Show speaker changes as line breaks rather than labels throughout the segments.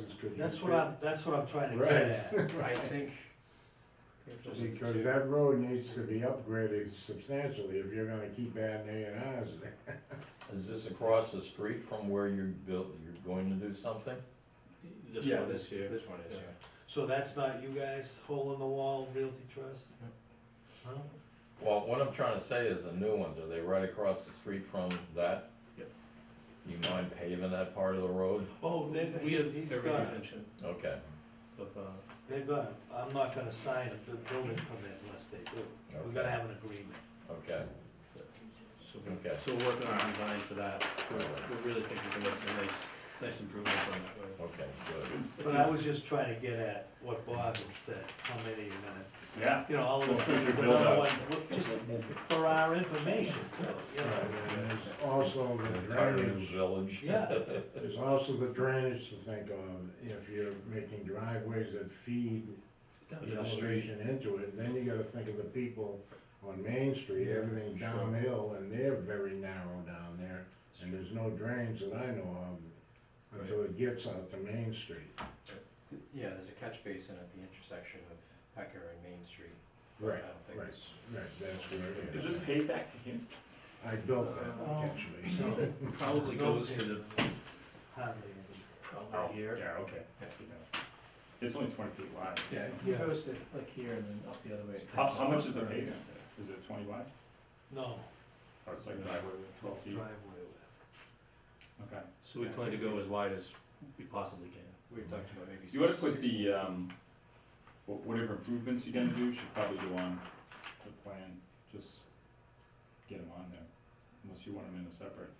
it's good.
That's what I'm, that's what I'm trying to
Right.
get at.
I think. it's just-
Because that road needs to be upgraded substantially if you're gonna keep adding A and Rs there.
Is this across the street from where you built, you're going to do something?
This
Yeah,
one
this-
is here.
This one is,
Yeah.
yeah.
So that's not you guys, hole in the wall, Realty Trust? No?
Well, what I'm trying to say is the new ones, are they right across the street from that?
Yep.
You mind paving that part of the road?
Oh, they,
We
he-
have
he's
every
got it,
intention
Okay,
of, uh,
they've got it, I'm not gonna sign a bu- building permit unless they do. We're gonna
Okay.
have an agreement.
okay,
so, we're-
Okay.
so we're working on a design for that. We're, we really think we can make some nice, nice improvements on that road.
okay, good.
But I was just trying to get at what Bob had said, how many are gonna,
Yeah.
you know, all of a sudden there's another one, look, just for our information, too, you know?
And there's also the
Entire
drainage,
village.
Yeah,
there's also the drainage to think of, if you're making driveways that feed the elevation into it, then you gotta think of the people on Main Street, everything
Sure.
downhill, and they're very narrow down there, and there's no drains that I know of until it gets out to Main Street.
Th- Yeah, there's a catch basin at the intersection of Pecker and Main Street. I
Right,
don't think
right.
it's.
right, that's where it
Is
is.
this paid back to him?
I built that,
Oh.
actually, so.
Probably goes to the,
hardly
Oh,
probably here.
Yeah, okay. It's only twenty feet wide.
Yeah,
Yeah.
it goes to like here and then up the other way.
How, how much is the pavement? Is it twenty wide?
any, no,
Or Oh, it's like driveway with twelve
it's
feet?
driveway
Okay.
So we plan to go as wide as we possibly can.
We were talking about maybe.
You wanna
six-
put
six-
the, um, wh- whatever improvements you're gonna do, should probably go on the plan, just get them on there, unless you want them in a separate.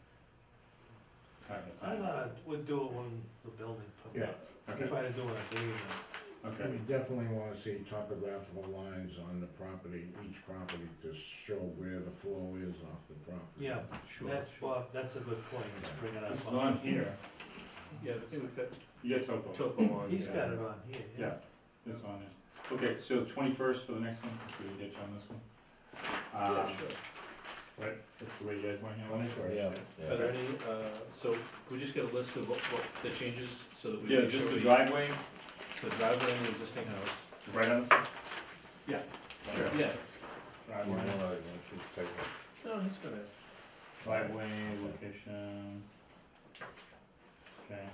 kind of
I
thing.
thought I would do it when the building permit,
Okay,
try to do an agreement.
okay.
We definitely wanna see topographical lines on the property, each property to show where the flow is off the property.
Yeah, that's, Bob, that's a good point, let's bring it up.
This is on here,
Yeah, we've got
you got topo.
topo on.
He's
yeah.
got it on here, yeah.
Yeah, it's on it. Okay, so twenty-first for the next one, since we didn't get you on this one. Uh,
Yeah, sure.
right, that's the way you guys wanna handle it?
Twenty-first.
Yeah,
Are
yeah.
there any, uh, so we just get a list of what, what the changes, so that we.
Yeah,
make
just
sure
the
we-
driveway,
The driveway and the existing house.
right on this one?
Yeah.
Sure.
Yeah.
You wanna-
Driveway,
you should take it.
No, he's got it.
driveway, location. Okay.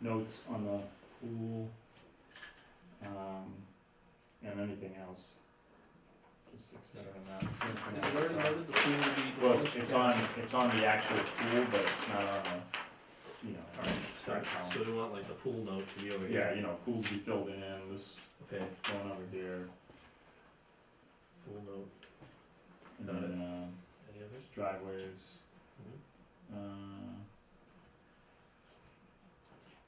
Notes on the pool. Um, and anything else. Just extend on that, see if
Is it already
there's-
noted the pool will be?
Well, it's on, it's on the actual pool, but it's not on the, you know,
Alright, so,
Sorry, Colin.
so we want like the pool note to be over here?
yeah, you know, pool be filled in, this
Okay,
going over here,
pool note,
and
Got it.
then, uh,
any others?
driveways. Uh,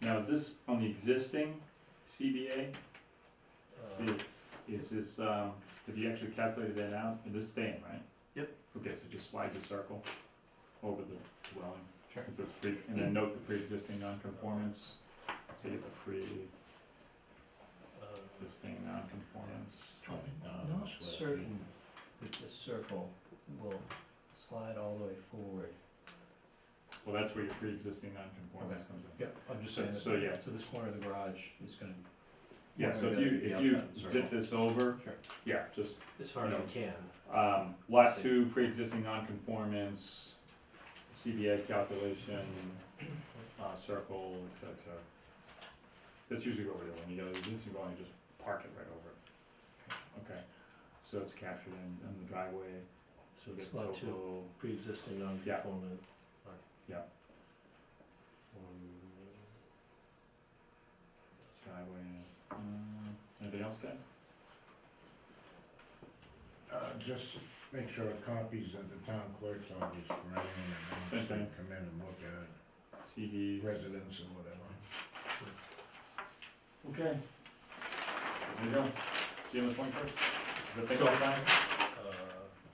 Now, is this on the existing CBA?
Uh,
The- Is this, um, have you actually calculated that out? Is this staying, right?
Yep.
Okay, so just slide the circle over the dwelling.
Sure.
So it's pre- And then note the pre-existing non-conformance, so you get the
uh,
pre-existing non-conformance.
Um,
Not
so-
certain that the circle will slide all the way forward.
Well, that's where your pre-existing non-conformance comes in.
Yeah, I'm just
So-
saying that.
so, yeah.
So this corner of the garage is gonna.
Yeah, so if
Yeah,
you,
the
if
outside
you
of the
zip
circle.
this over,
Sure.
yeah, just
As far as we can.
Um, lot
See.
two, pre-existing non-conformance, CBA calculation, uh, circle, et cetera. That's usually what we're doing, you know, existing dwelling, just park it right over it. Okay, so it's captured in, in the driveway,
So
we
it's
get
lot two,
topo,
pre-existing non-conformant. alright.
Yeah.
Um,
driveway, um, anything else, guys?
Uh, just make sure a copies at the town clerk's office for anyone that
Same
wants to
thing.
come in and look at
CDs.
it, residents or whatever.
Okay. There you go, see you on the twenty-first, is that thing
So-
all signed?
Uh,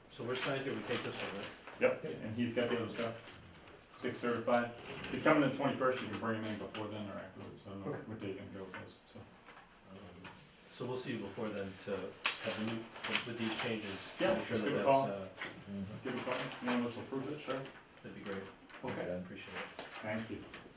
So we're signed here, we take this one, right?
Yep, and he's got the other stuff, six certified. If you come in the twenty-first, you can bring him in before then or afterwards, I don't know
Okay.
what day you can go with this, so.
Um, So we'll see you before then to have the new, with with these changes. to
Yeah,
make sure
just
that
give a
that's,
call.
uh,
Mhm.
Give it a call, one of us will prove it, sure.
That'd be great,
Okay.
appreciate it.
Thank you.